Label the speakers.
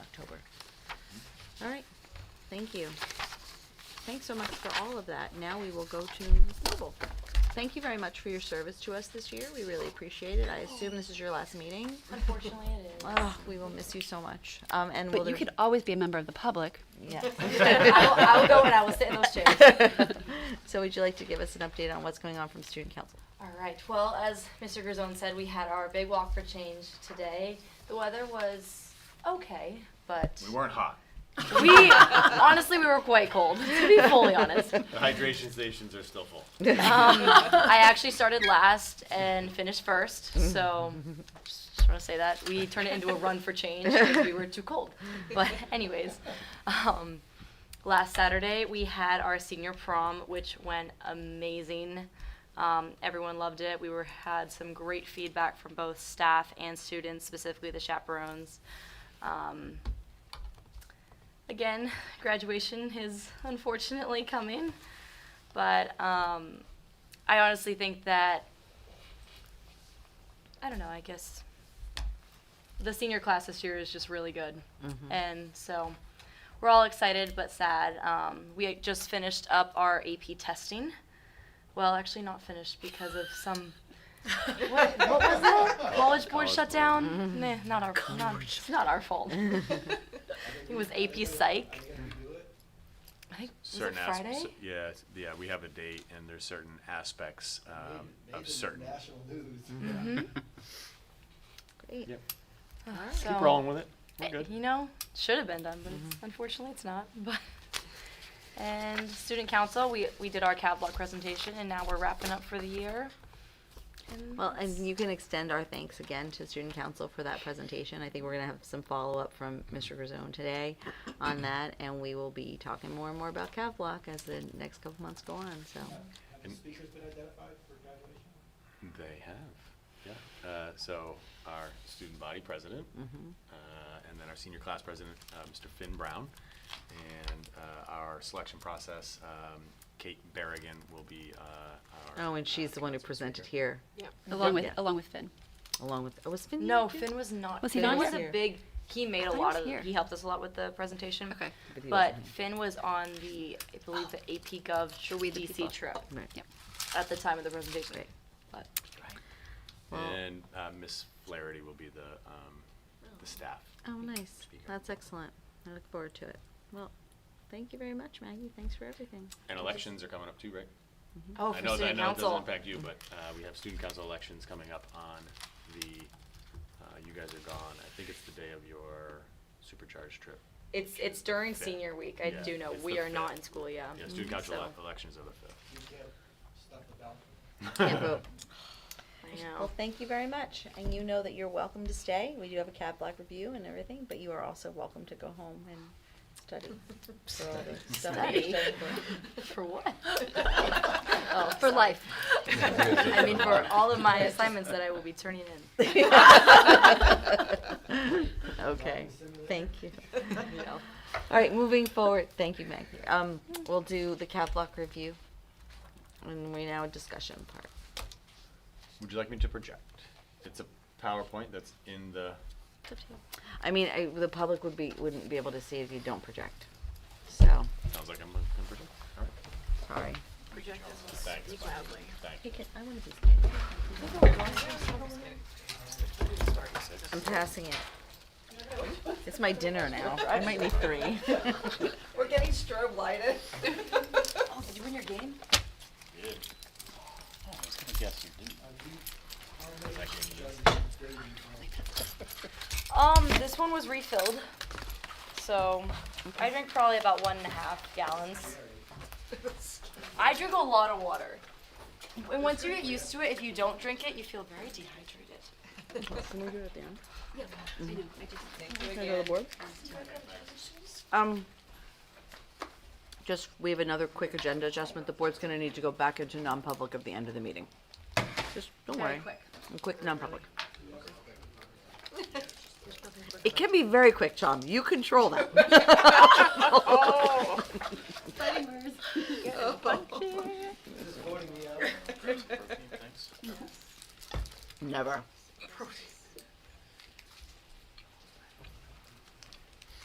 Speaker 1: Thank you. Thanks so much for all of that. Now we will go to Noble. Thank you very much for your service to us this year. We really appreciate it. I assume this is your last meeting.
Speaker 2: Unfortunately, it is.
Speaker 1: Oh, we will miss you so much. Um, and will
Speaker 3: But you
Speaker 1: there-
Speaker 3: could always be a member of the public.
Speaker 1: Yeah.
Speaker 2: I will, I will go and I will sit in those chairs.
Speaker 1: So would you like to give us an update on what's going on from student council?
Speaker 2: All right. Well, as Mr. Grisone said, we had our big walk for change today. The weather was okay, but
Speaker 4: We weren't hot.
Speaker 2: we honestly we were quite cold. To be fully honest, um,
Speaker 4: The hydration stations are still full.
Speaker 2: I actually started last and finished first, so just want to say that we turned it into a run for change because we were too cold. But anyways, um, last Saturday we had our senior prom, which went amazing. Um, everyone loved it. We were had some great feedback from both staff and students, specifically the chaperones. Um, again, graduation is unfortunately coming, but um, I honestly think that I don't know. I guess the senior class this year is just really good, and so we're all excited but sad. Um, we had just finished up our AP testing. Well, actually, not finished because of some. what, what was that? College board shutdown? Nah, not our not, it's not our fault. it was AP Psych. I think was it
Speaker 4: Certain asp-
Speaker 2: Friday.
Speaker 4: cer- Yeah, it's- yeah, we have a date and there's certain aspects um, of certain.
Speaker 5: National news.
Speaker 1: Great.
Speaker 6: Yep.
Speaker 2: so,
Speaker 6: Keep rolling with it. We're
Speaker 2: Eh,
Speaker 6: good.
Speaker 2: You know, should have been done, but it's, unfortunately, it's not. But and student council, we we did our catalog presentation, and now we're wrapping up for the year. And
Speaker 1: Well, and you can extend our thanks again to student council for that presentation. I think we're gonna have some follow-up from Mr. Grisone today on that, and we will be talking more and more about Cavlock as the next couple months go on, so.
Speaker 5: Have the
Speaker 4: And-
Speaker 5: speakers been identified for graduation?
Speaker 4: They have, yeah. Uh, So our student body president,
Speaker 1: Mm-hmm.
Speaker 4: uh, and then our senior class president, uh, Mr. Finn Brown, and uh, our selection process, um, Kate Berrigan will be uh, our.
Speaker 1: Oh, and she's
Speaker 4: uh,
Speaker 1: the one who
Speaker 4: council
Speaker 1: presented
Speaker 4: speaker.
Speaker 1: here,
Speaker 3: Along with
Speaker 1: Yeah.
Speaker 3: along with Finn.
Speaker 1: along with, oh, was Finn? here
Speaker 2: no,
Speaker 1: too?
Speaker 2: Finn was not.
Speaker 3: Was he
Speaker 2: Finn
Speaker 3: not
Speaker 2: was
Speaker 1: here?
Speaker 2: a big. He made a
Speaker 3: thought he
Speaker 2: lot
Speaker 3: was
Speaker 2: of.
Speaker 3: here.
Speaker 2: He helped us a lot with the presentation.
Speaker 3: Okay.
Speaker 1: But he
Speaker 2: But
Speaker 1: wasn't.
Speaker 2: Finn was on the, I believe, the AP Gov
Speaker 3: Sure, we the people.
Speaker 2: DC trip
Speaker 1: Right.
Speaker 3: Yep.
Speaker 2: at the time of the presentation.
Speaker 1: Right.
Speaker 2: But
Speaker 1: Well-
Speaker 4: And uh, Miss Flaherty will be the, um, the staff.
Speaker 1: Oh, nice.
Speaker 4: Speaker.
Speaker 1: That's excellent. I look forward to it. Well, thank you very much, Maggie. Thanks for everything.
Speaker 4: And elections are coming up too, right?
Speaker 2: oh, for
Speaker 4: I know, that- I
Speaker 2: student
Speaker 4: know it
Speaker 2: council.
Speaker 4: doesn't impact you, but uh, we have student council elections coming up on the, uh, you guys are gone, I think it's the day of your supercharged trip.
Speaker 2: It's it's during
Speaker 4: Fifth.
Speaker 2: senior week. I
Speaker 4: Yeah,
Speaker 2: do know
Speaker 4: it's
Speaker 2: we
Speaker 4: the
Speaker 2: are not
Speaker 4: fifth.
Speaker 2: in school. Yeah. Mm-hmm.
Speaker 4: Yeah, student council
Speaker 2: So,
Speaker 4: elec- elections are the fifth.
Speaker 5: You can't stuff the ballot.
Speaker 1: Can't vote.
Speaker 2: I know.
Speaker 1: Well, thank you very much. And you know that you're welcome to stay. We do have a cab block review and everything, but you are also welcome to go home and study. for all the stuff that you're
Speaker 2: Study?
Speaker 1: studying for.
Speaker 2: For what? oh, for life. I mean, for all of my assignments that I will be turning in.
Speaker 1: Okay,
Speaker 5: Simulate.
Speaker 1: thank you. All right, moving forward, thank you, Maggie. Um, we'll do the cab block review. And we now discussion part.
Speaker 4: Would you like me to project? It's a PowerPoint that's in the,
Speaker 2: It's up to you.
Speaker 1: I mean, I, the public would be, wouldn't be able to see if you don't project. So,
Speaker 4: sounds like I'm gonna gonna project, all
Speaker 1: sorry.
Speaker 4: right, thanks. Thank you.
Speaker 1: I want to be I'm passing it. It's my dinner now. I might need three.
Speaker 7: We're getting strobe lighted.
Speaker 2: Oh, did you win your game?
Speaker 6: Oh, I was gonna guess you didn't.
Speaker 2: Um, this one was refilled. So I drank probably about one and a half gallons. I drink a lot of water. And once you get used to it, if you don't drink it, you feel very dehydrated.
Speaker 1: Can we do it at the end?
Speaker 7: Thank
Speaker 1: Can I go to the board? Um, just, we have another quick agenda adjustment. The board's gonna need to go back into non-public at the end of the meeting. Just, don't worry. A Quick, non-public. It can be very quick, Tom. You control that.
Speaker 5: Just voting me out.
Speaker 4: Thanks.
Speaker 1: Never.